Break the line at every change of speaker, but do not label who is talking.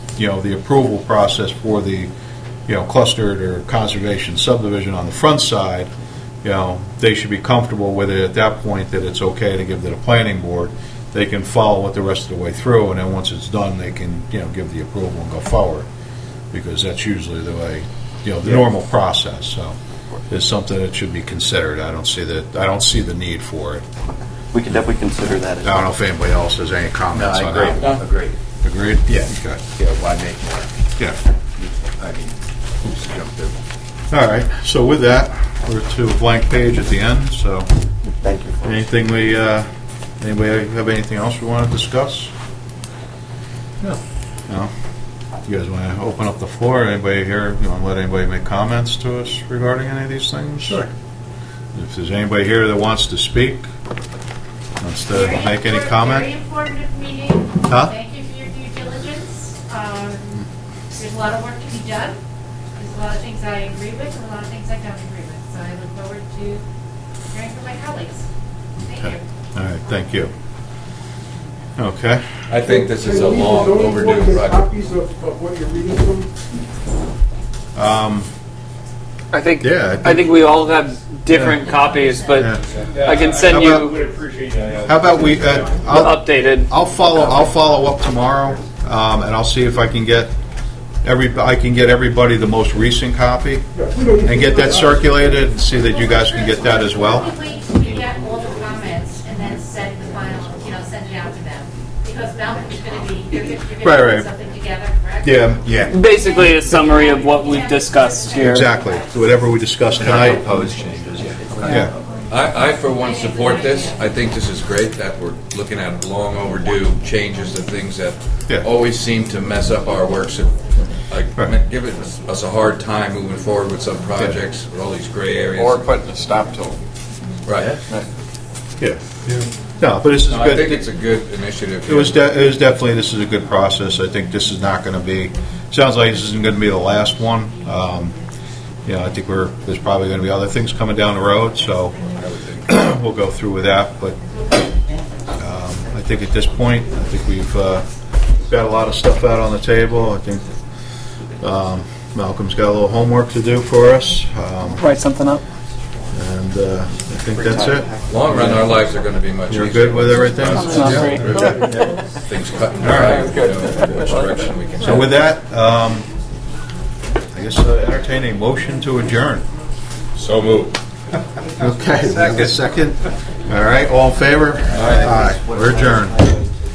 you know, the approval process for the, you know, clustered or conservation subdivision on the front side, you know, they should be comfortable with it at that point, that it's okay to give to the planning board. They can follow it the rest of the way through, and then once it's done, they can, you know, give the approval and go forward, because that's usually the way, you know, the
Yeah.
normal process, so it's something that should be considered. I don't see that, I don't see the need for it.
We could definitely consider that as
I don't know
well.
if anybody else has any comments on that.
Agreed.
Agreed? Yeah. Okay,
Yeah, why make more?
yeah.
I mean, who's to jump through?
All right, so with that, we're to a blank page at the end, so
Thank you. folks.
anything we, uh, anybody have anything else we want to discuss?
No.
No? You guys want to open up the floor, anybody here, you want to let anybody make comments to us regarding any of these things?
Sure.
If there's anybody here that wants to speak, wants to
Very
make any
infor- Very
comment?
informative meeting.
Huh?
Thank you for your due diligence. Um, There's a lot of work to be done. There's a lot of things I agree with and a lot of things I don't agree with. So I look forward to hearing from my colleagues. Thank
Okay.
you.
All right, thank you. Okay.
I think this is a long overdue project.
Copies of, of what you're reading from?
Um,
I think
Yeah, I think-
I think we all have different copies, but
yeah.
I can
How
send
about-
you
Would appreciate that.
How about we, uh,
the
I'll-
updated.
I'll follow, I'll follow up tomorrow, um, and I'll see if I can get every, I can get everybody the most recent copy and get that circulated and see that you guys can get that as well.
We wait till we get all the comments and then send the final, you know, send it out to them. Because Malcolm's going to be, you're going to
Right,
put
right.
something together, correct?
Yeah,
Basically, a summary of what we've discussed here.
exactly. Whatever we discussed tonight,
Proposed changes, yeah.
yeah,
I, I for one support this. I think this is great that we're looking at long overdue changes to things
Yeah.
that always seem to mess up our works and like
Right.
give it- us a hard time moving forward with some projects with all these gray areas.
Or putting a stop till.
Right.
yeah. No, but this is
No, I think
good.
it's a good initiative.
It was, de- it was definitely, this is a good process. I think this is not gonna be, sounds like this isn't gonna be the last one. Um, you know, I think we're, there's probably gonna be other things coming down the road, so,
I would think.
we'll go through with that, but um, I think at this point, I think we've uh, got a lot of stuff out on the table. I think um, Malcolm's got a little homework to do for us, um,
Write something up.
and uh, I think that's it.
Long run, our lives are going to be much easier.
You're good with
once
everything?
this
Sounds
Yeah.
great.
process- Things cut and
All right.
dry. you know, Which direction we can.
So with that, um, I guess uh, entertain a motion to adjourn.
So moved.
Okay. Second. All right, all in favor? Aye. We're adjourned.